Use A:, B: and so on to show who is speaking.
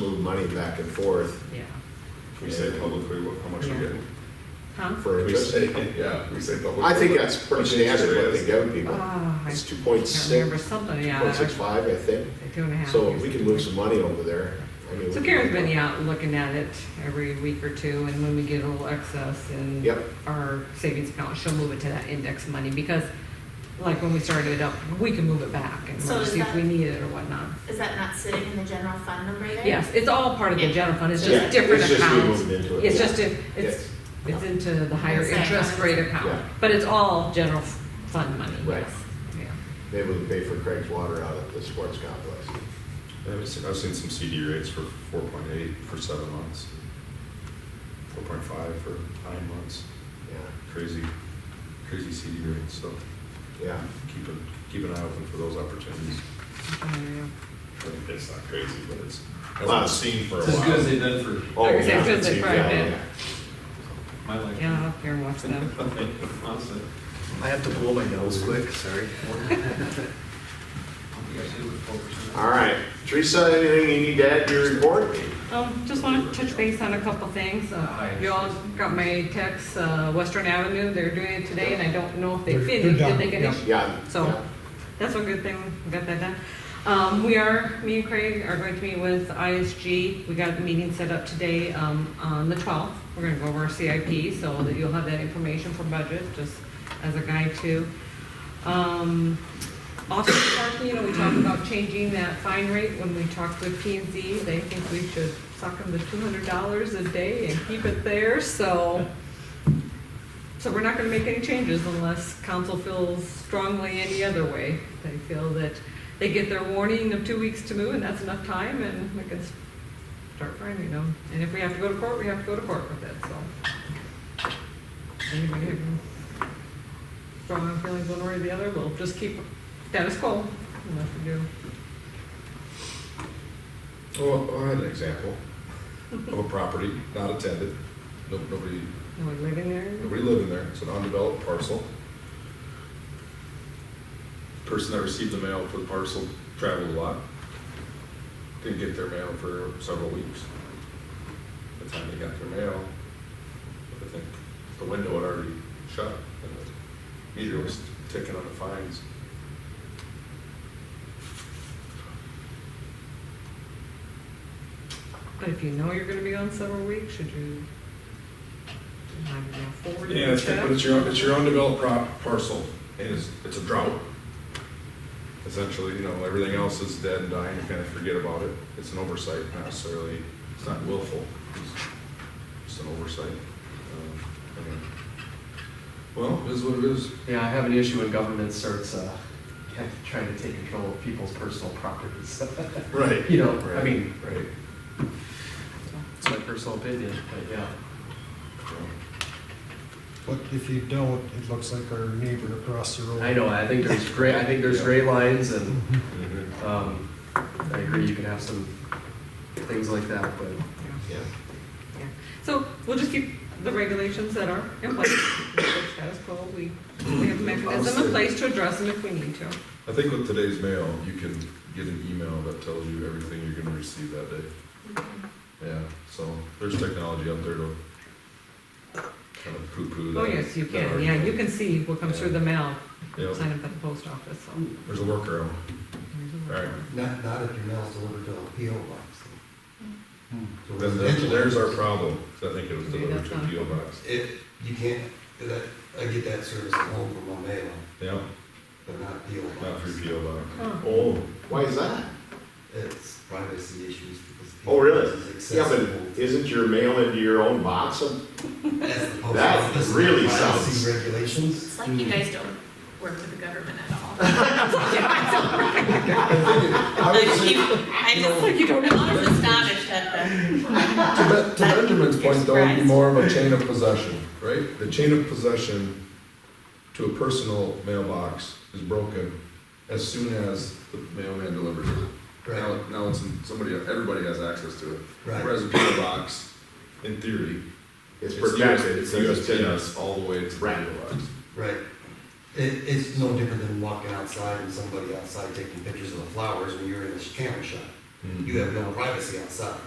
A: money back and forth
B: yeah.
C: Can we say publicly what, how much we're
B: Yeah.
C: getting?
B: Huh?
A: for
C: Can we
A: interest.
C: say, yeah, can we say publicly?
A: I think
C: what-
A: that's pretty
C: what the interest
A: standard what
C: rate
A: they
C: is?
A: give people.
B: Ah, I
A: It's two
B: can't
A: point six,
B: Remember something,
A: two
B: yeah.
A: point six five, I think.
B: Two and a half.
A: So
B: or
A: if we can
B: something.
A: move some money over there. I mean,
B: So
A: we-
B: Karen's been out looking at it every week or two, and when we get a little excess in
A: Yep.
B: our savings account, she'll move it to that index money, because like when we started it up, we can move it back and
D: So
B: we'll
D: is
B: see if
D: that-
B: we need it or whatnot.
D: Is that not sitting in the general fund number there?
B: Yes, it's all part of the
D: Yeah.
B: general fund, it's
A: Yeah,
B: just different
A: it's just we
B: accounts.
A: moved into it,
B: It's
A: yeah.
B: just, a- it's, it's into the higher
D: It's like-
B: interest rate
A: Yeah.
B: account, but it's all general fund money,
A: Right.
B: yes. Yeah.
A: Maybe we can pay for Craig's water out at the sports complex.
C: Yeah, I've seen, I've seen some CD rates for four point eight for seven months, four point five for nine months.
A: Yeah,
C: Crazy, crazy CD rates. So
A: yeah.
C: keep an keep an eye open for those opportunities.
B: Okay,
C: I mean, it's not crazy, but it's hasn't
A: Wow.
C: been seen for a
E: It's
C: while.
E: as good as they've done for
A: Oh,
B: Like I said,
A: yeah.
B: it's good that
A: Yeah,
B: Friday.
A: yeah.
E: my life.
B: Yeah, Karen watch them.
E: Honestly,
F: I have to blow my nose quick, sorry.
E: I think I should look forward to it.
A: All right, Teresa, anything you need to add to your report?
B: Um, just want to touch base on a couple things. Uh, You all got my text, uh, Western Avenue, they're doing it today, and I don't know if they
G: They're-
B: finished,
G: they're
B: did they
G: done,
B: finish?
A: Yeah.
B: So, that's a good thing, we got that done. Um, we are, me and Craig are going to meet with ISG, we got the meeting set up today, um, on the twelfth. We're gonna go over our CIP, so that you'll have that information for budget, just as a guide too. Um, also parking, you know, we talked about changing that fine rate when we talked with P and Z, they think we should suck them to two hundred dollars a day and keep it there, so. So we're not gonna make any changes unless council feels strongly any other way. They feel that they get their warning of two weeks to move, and that's enough time, and we can start finding them. And if we have to go to court, we have to go to court with it, so. Anybody have strong feelings one way or the other, we'll just keep status quo, nothing to do.
C: Oh, Well, I had an example of a property not attended. No, nobody
B: No one living there?
C: Nobody living there, it's an undeveloped parcel. Person that received the mail for the parcel traveled a lot. Didn't get their mail for several weeks. By the time they got their mail, I think the window had already shut, and the meter was ticking on the fines.
B: But if you know you're gonna be on several weeks, should you? I don't know, forward it
C: Yeah, it's,
B: check?
C: but it's your, it's your undeveloped pro- parcel, and it's, it's a drought. Essentially, you know, everything else is dead and dying, you kind of forget about it. It's an oversight, not necessarily, it's not willful, it's just an oversight. Um, I mean, Well, it is what it is.
F: Yeah, I have an issue when government starts, uh, yeah, trying to take control of people's personal properties.
C: Right.
F: You know, I mean,
C: Right.
F: it's my personal opinion, but yeah.
G: But if you don't, it looks like our neighbor across the road.
F: I know, I think there's gray, I think there's gray lines and,
G: Mhm.
C: Mhm.
F: um, I agree, you can have some things like that, but
B: Yeah.
A: Yeah.
B: Yeah. So we'll just keep the regulations that are in place, status quo, we, we have a mechanism in place to address them if we need to.
C: I think with today's mail, you can get an email that tells you everything you're gonna receive that day. Yeah, so there's technology out there to kind of poo-poo that.
B: Oh, yes, you
C: that
B: can, yeah,
C: argument.
B: you can see what comes through the mail,
C: Yeah.
B: sign up at the post office, so.
C: There's a workaround. All right.
H: Not, not if your mail's delivered to a PO box.
C: Then
H: So residential-
C: that- there's our problem, 'cause I think it was delivered to a PO box.
H: If, you can't, that, I get that service at home from my mail,
C: Yeah,
H: but not PO box.
C: not through PO box.
B: Huh.
C: Oh,
A: Why is that?
H: It's privacy issues because.
A: Oh, really?
H: PO box is
A: Yeah, but
H: accessible.
A: isn't your mail into your own box?
H: That's the post
A: That
H: office
A: really
H: privacy
A: sounds-
H: Regulations.
D: It's like you guys don't work with the government at all.
H: I
D: Like
H: would say,
D: you, I just,
B: Like you don't know.
D: I'm just astonished at the.
C: To Ben- to Benjamin's point, though, it'd be
D: Surprise.
C: more of a chain of possession, right? The chain of possession to a personal mailbox is broken as soon as the mailman delivers it. Now,
H: Right.
C: now it's, in- somebody, everybody has access to it.
H: Right.
C: Whereas a PO box, in theory,
A: It's
C: US-
A: protected.
C: It's
A: says it's in
C: USPS all the way to the
A: Right.
C: PO box.
H: Right. It, it's no different than walking outside and
C: Hmm.
H: somebody outside taking pictures of the flowers when you're in the camera shop. You have no privacy outside.